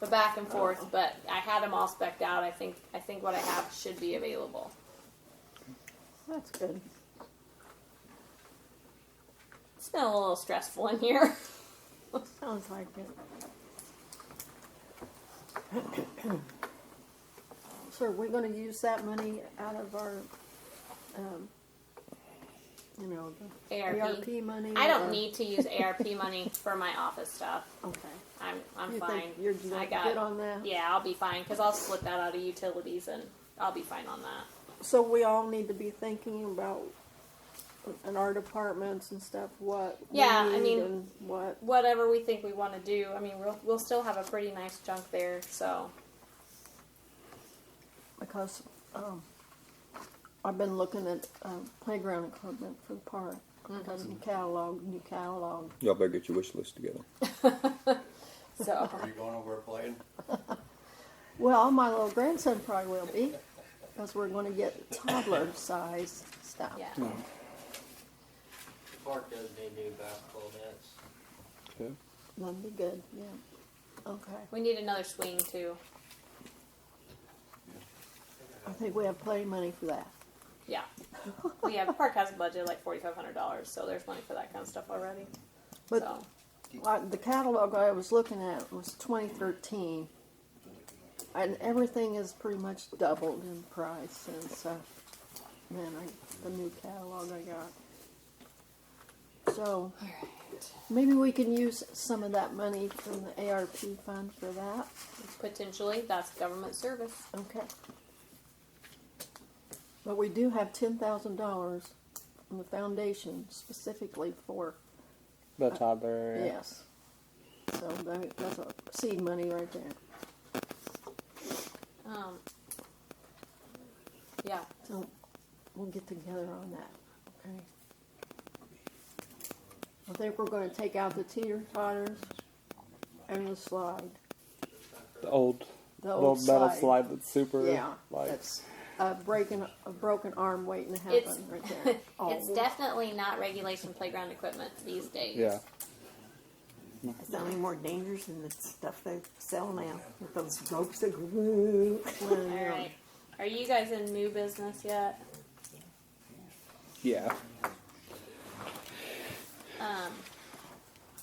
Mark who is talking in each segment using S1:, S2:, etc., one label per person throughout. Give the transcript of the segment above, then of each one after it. S1: but back and forth.
S2: Oh.
S1: But I had them all specked out. I think I think what I have should be available.
S2: That's good.
S1: It's been a little stressful in here.
S2: Sounds like it. So are we gonna use that money out of our, um, you know, the
S1: ARP.
S2: ARP money?
S1: I don't
S2: or-
S1: need to use ARP money for my office stuff.
S2: Okay.
S1: I'm I'm
S2: You
S1: fine.
S2: think you're
S1: I
S2: not
S1: got
S2: good on that?
S1: yeah. I'll be fine because I'll split that out of utilities and I'll be fine on that.
S2: So we all need to be thinking about, in our departments and stuff, what we
S1: Yeah, I
S2: need
S1: mean-
S2: and what,
S1: Whatever we think we want to do. I mean, we'll we'll still have a pretty nice chunk there. So
S2: because, um, I've been looking at, um, playground equipment for the park. Because you catalog, you catalog.
S3: Y'all better get your wish list together.
S1: so
S4: Are you going over playing?
S2: Well, my little grandson probably will be, because we're gonna get toddler size stuff.
S1: yeah.
S5: The park does need new basketball nets.
S3: Okay.
S2: That'd be good, yeah. Okay,
S1: We need another swing too.
S2: I think we have plenty of money for that.
S1: Yeah. We have the park has a budget of like forty five hundred dollars, so there's money for that kind of stuff already.
S2: But
S1: so
S2: like, the catalog I was looking at was twenty thirteen, and everything is pretty much doubled in price since, uh, then I, the new catalog I got. So,
S1: all right.
S2: maybe we can use some of that money from the ARP fund for that,
S1: Potentially that's government service.
S2: okay? But we do have ten thousand dollars from the foundation specifically for
S6: The toddler.
S2: Yes. So that, that's a seed money right there.
S1: Um yeah.
S2: So we'll get together on that, okay? I think we're gonna take out the teeter totters and the slide,
S6: The old,
S2: the
S6: the
S2: old
S6: old metal
S2: slide.
S6: slide. that's super.
S2: Yeah,
S6: Like,
S2: that's a breaking, a broken arm waiting to
S1: It's-
S2: happen right there.
S1: It's
S2: Oh,
S1: definitely not regulation playground equipment these days.
S6: yeah.
S7: It's not any more dangerous than the stuff they sell now with those ropes that go.
S1: All right. Are you guys in new business yet?
S3: Yeah.
S1: Um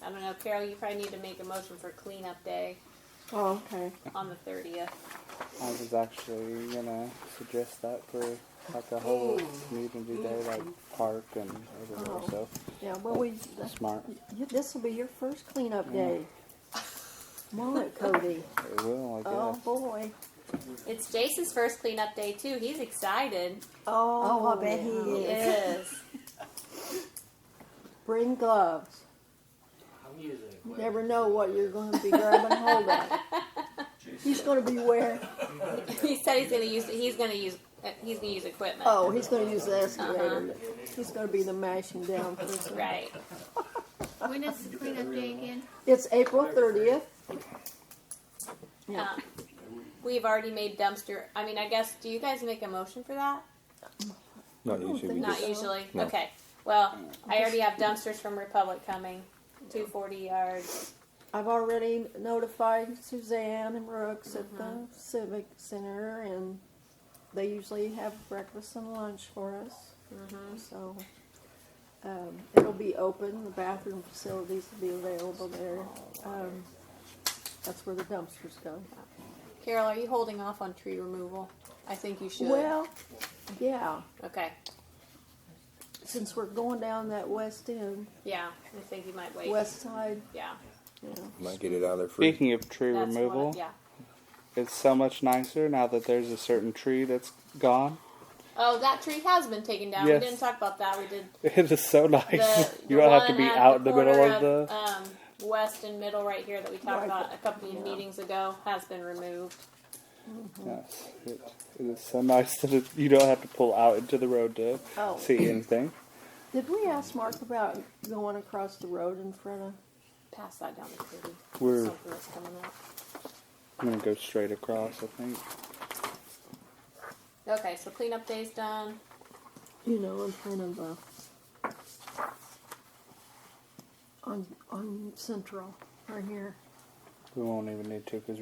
S1: I don't know, Carol, you probably need to make a motion for cleanup day
S2: Oh, okay.
S1: on the thirtieth.
S6: I was actually gonna suggest that for like a whole community day, like park and everywhere.
S2: Oh.
S6: So
S2: Yeah, well, we,
S6: that's smart.
S2: this will be your first cleanup day. Mullet Cody.
S6: It will, I
S2: Oh,
S6: guess.
S2: boy.
S1: It's Jason's first cleanup day too. He's excited.
S7: Oh, I bet he
S2: yeah.
S7: is.
S1: Yes.
S2: Bring gloves.
S5: I'm using it.
S2: You never know what you're going to be grabbing hold of. He's going to be where?
S1: he said he's gonna use he's gonna use uh, he's gonna use equipment.
S2: Oh, he's going to use the escalator. He's going to be the mashing down person.
S1: Uh-huh. right.
S8: When is the cleanup day again?
S2: It's April 30th. Yeah.
S1: Um, we've already made dumpster. I mean, I guess do you guys make a motion for that?
S3: Not
S2: don't
S3: usually.
S2: think
S3: we
S1: Not
S3: just-
S2: so.
S1: usually.
S3: No.
S1: Okay. Well, I already have dumpsters from Republic coming. 240 yards.
S2: I've already notified Suzanne and Brooks at the
S1: Mm-hmm.
S2: Civic Center, and they usually have breakfast and lunch for us.
S1: Mm-hmm.
S2: So um, it'll be open. The bathroom facilities will be available there.
S1: Oh,
S2: Um, that's where the dumpsters go.
S1: Carol, are you holding off on tree removal? I think you should.
S2: Well, yeah.
S1: okay.
S2: Since we're going down that west end,
S1: Yeah, I think you might wait.
S2: west side,
S1: Yeah.
S2: you know,
S3: Might get it out of there free.
S6: Speaking of tree
S1: That's what I-
S6: removal,
S1: yeah.
S6: it's so much nicer now that there's a certain tree that's gone.
S1: Oh, that tree has been taken down.
S6: Yes.
S1: We didn't talk about that. We did
S6: It is so nice.
S1: the,
S6: you
S1: the
S6: don't have to
S1: one
S6: be
S1: at
S6: out in the middle
S1: corner
S6: of the.
S1: um, west and middle right here that we talked
S2: Right.
S1: about a couple of meetings ago has been removed.
S6: Yes, it, it is so nice that it, you don't have to pull out into the road to
S2: Oh.
S6: see anything.
S2: Did we ask Mark about going across the road in front of?
S1: Pass that down to Katie.
S6: We're-
S1: Something that's coming up.
S6: I'm gonna go straight across. I think.
S1: Okay, so cleanup day's done.
S2: you know, in front of uh, on on Central right here.
S6: We won't even need to because